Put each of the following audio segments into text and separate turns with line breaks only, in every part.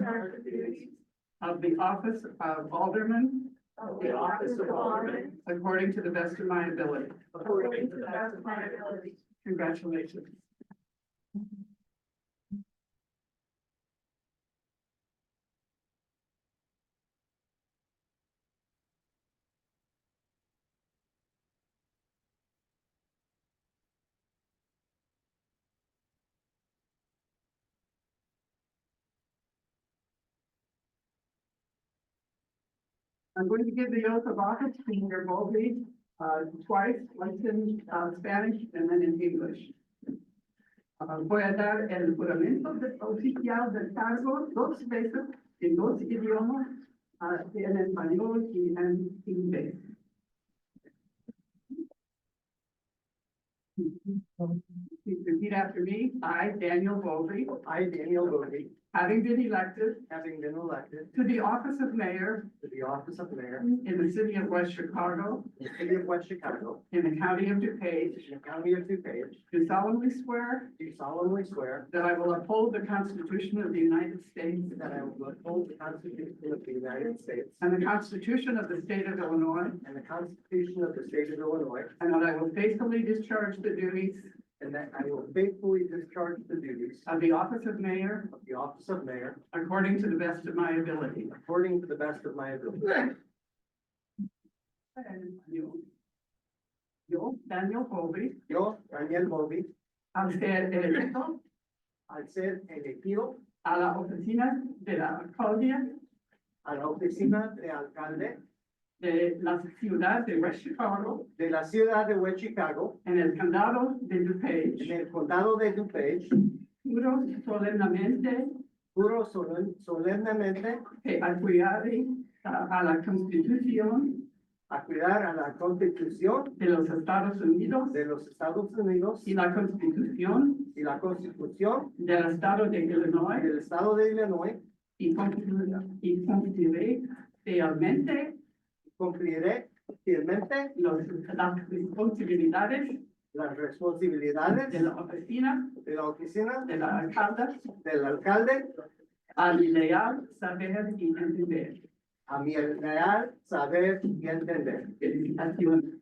her duties of the office of alderman,
of the office of alderman
according to the best of my ability.
according to the best of my ability.
Congratulations. I'm going to give the oath of office to Mayor Bowlby uh, twice, once in uh, Spanish and then in English. Uh, Voy a dar el juramento de- oficial del cargo dos veces en dos idiomas, ah, en español y en inglés. Please repeat after me. I, Daniel Bowlby,
I, Daniel Bodie,
having been elected
having been elected
to the office of mayor
to the office of mayor
in the city of West Chicago,
in the city of West Chicago,
in the county of DuPage,
in the county of DuPage,
do solemnly swear
do solemnly swear
That I will uphold the Constitution of the United States
that I will uphold the Constitution of the United States
and the Constitution of the State of Illinois,
and the Constitution of the state of Illinois,
and that I will faithfully discharge the duties
and that I will faithfully discharge the duties
of the office of mayor
of the office of mayor
according to the best of my ability.
according to the best of my ability.
And you, Yo, Daniel Colby,
Yo, Daniel Bodie,
hacer el reto
al ser elegido
a la oficina de la alcaldía
a la oficina de alcalde
de la ciudad de West Chicago
de la ciudad de West Chicago
en el condado de
en
DuPage.
el condado de DuPage,
Juro solemnemente
juro solen- solemnemente
que apoyaré a a la Constitución
a cuidar a la Constitución
de los Estados Unidos
de los Estados Unidos
y la Constitución
y la Constitución
del Estado de Illinois
del Estado de Illinois.
y cumpliré, y cumpliré fielmente
Cumpliré fielmente
los- las responsabilidades
las
de
responsabilidades
la oficina
de la oficina
de la alcalde
del alcalde
a mi leal saber y entender.
a mi leal saber y entender.
Felicitaciones.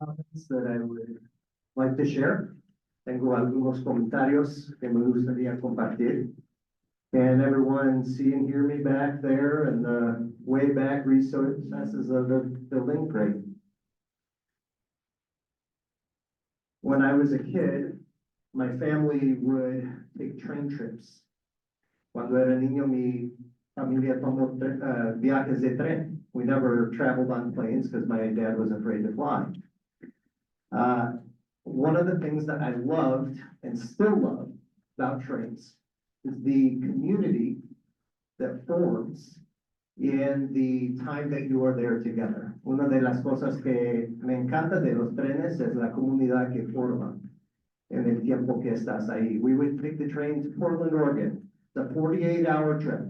comments that I would like to share. Tengo algunos comentarios que me gustaría compartir. Can everyone see and hear me back there in the way back recesses of the building? Great. When I was a kid, my family would take train trips. Cuando era niño, mi familia tomó tre- uh, viajes de tren. We never traveled on planes because my dad was afraid to fly. Uh, one of the things that I loved and still love about trains is the community that forms in the time that you are there together. Una de las cosas que me encanta de los trenes es la comunidad que forman en el tiempo que estás ahí. We would take the train to Portland, Oregon, the forty-eight hour trip.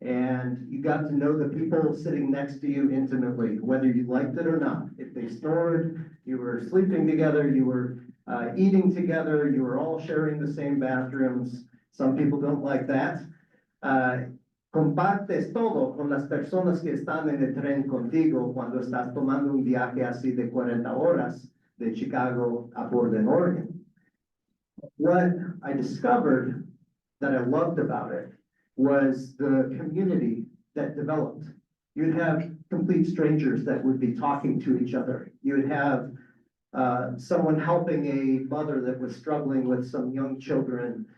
And you got to know the people sitting next to you intimately, whether you liked it or not. If they snored, you were sleeping together, you were uh, eating together, you were all sharing the same bathrooms. Some people don't like that. Uh, Compartes todo con las personas que están en el tren contigo cuando estás tomando un viaje así de 40 horas de Chicago a Portland, Oregon. What I discovered that I loved about it was the community that developed. You'd have complete strangers that would be talking to each other. You would have uh, someone helping a mother that was struggling with some young children